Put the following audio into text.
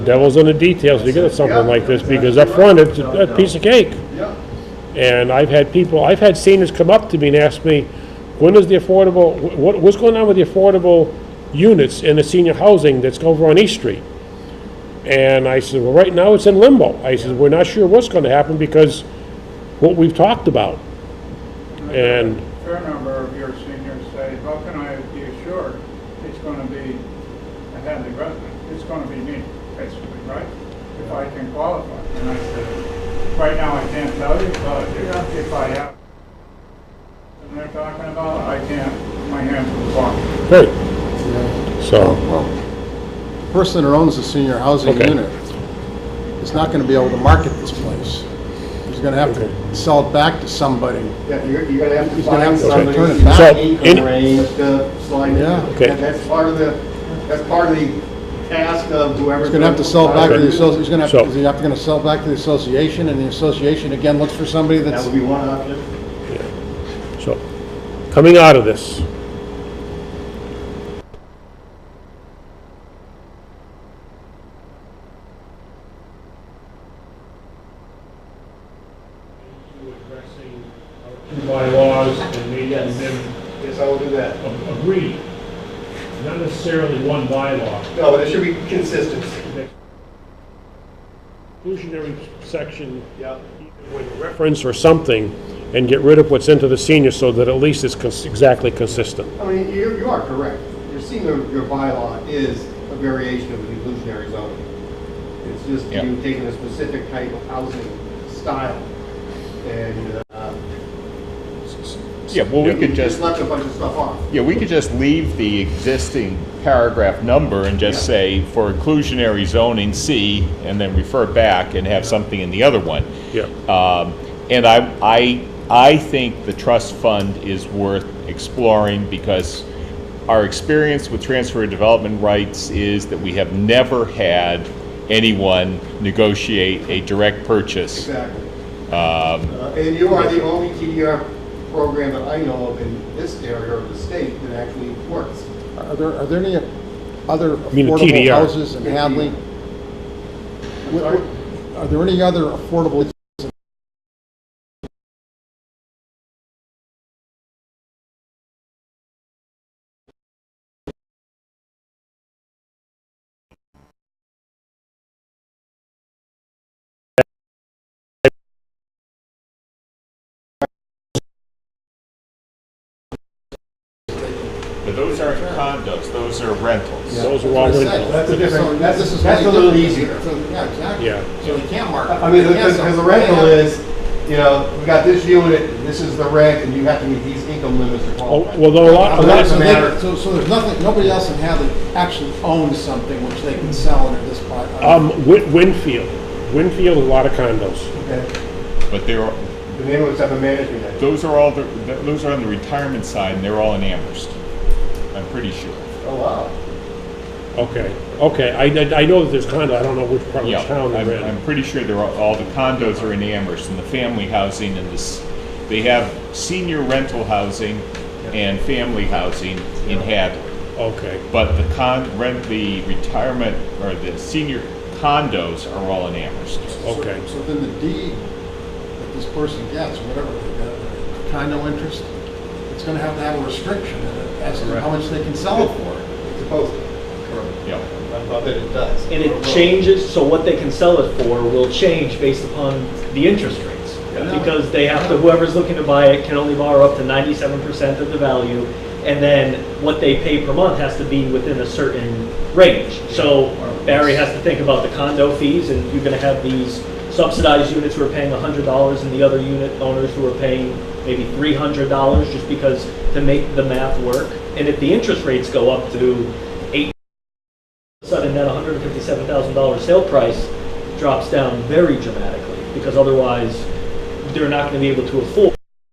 Devil's in the details to get at something like this, because up front, it's a a piece of cake. And I've had people, I've had seniors come up to me and ask me, when is the affordable, wh- what, what's going on with the affordable units in the senior housing that's over on East Street? And I said, well, right now, it's in limbo. I said, we're not sure what's gonna happen because what we've talked about. And, A fair number of your seniors say, how can I be assured it's gonna be a Hadley resident? It's gonna be me, basically, right? If I can qualify. And I said, right now I can't tell you, but if I have. And they're talking about, I can't, my hands are blocked. great, Yeah. so, Person that owns the senior housing Okay. unit is not gonna be able to market this place. He's gonna have to sell it back to somebody. Yeah, you're, you're gonna have to He's gonna have find to somebody. turn it in the back. So, Income in- range to slide. Yeah. Okay. And that's part of the, that's part of the task of whoever's. He's gonna have to sell it back to the, associ- he's gonna have, So- to- he's gonna sell it back to the association, and the association again looks for somebody That that's, would be one option. so, coming out of this, addressing our two bylaws and making them Yes, I will do that. a- agree, not necessarily one bylaw. No, but there should be consistency. Inclusionary section, Yeah. with reference or something, and get rid of what's into the senior so that at least it's cons- exactly consistent. I mean, you, you are correct. Your senior, your bylaw is a variation of the inclusionary zoning. It's just you taking a specific type of housing style and, uh, Yeah, well, we Yeah. could just just, left a bunch of stuff off. yeah, we could just leave the existing paragraph number and just say, for inclusionary zoning, C, and then refer back and have something in the other one. Yeah. Um, And I, I, I think the trust fund is worth exploring because our experience with transfer of development rights is that we have never had anyone negotiate a direct purchase. Exactly. Um, Uh, And you are the only TDR program that I know of in this area of the state that actually works. are there, are there any other mean a affordable TDR. houses in Hadley? I'm Wh- sorry? wh- Are there any other affordable But those aren't condos, those are rentals. Those are all rentals. That's a different, This that's, is that's a really little easier. different. So, Yeah, exactly. Yeah. So you can't market. I mean, You can't because sell- the rental Yeah. is, you know, we got this unit, and this is the rent, and you have to meet these income limits to Oh, qualify. Well, though a lot, a lot, Well, that's- So they- matter. So, so there's nothing, nobody else in Hadley actually owns something which they can sell under this part? um, Win- Winfield, Winfield, a lot of condos. Okay. But there are, The name of it's up in management. then. Those are all, the th- those are on the retirement side, and they're all in Amherst, I'm pretty sure. Oh, wow. Okay, okay, I, I- I know that there's condo, I don't know which part Yeah, of town I'm, they're in. I'm pretty sure they're, all all the condos are in Amherst, and the family housing and this, they have senior rental housing and family housing in Hadley. Okay, But the con, rent, the retirement, or the senior condos are all in Amherst. okay. So then the deed that this person gets, whatever they got, condo interest, it's gonna have to have a restriction in it as to how much they can sell it for. It's supposed to. Correct. Yeah. I thought that it does. And it changes, so what they can sell it for will change based upon the interest rates. Because they have to, whoever's looking to buy it can only borrow up to ninety-seven percent of the value. And then what they pay per month has to be within a certain range. So Barry has to think about the condo fees and you're gonna have these subsidized units who are paying hundred dollars and the other unit owners who are paying maybe three hundred dollars just because to make the math work. And if the interest rates go up to eight sudden that $157,000 sale price drops down very dramatically because otherwise they're not going to be able to afford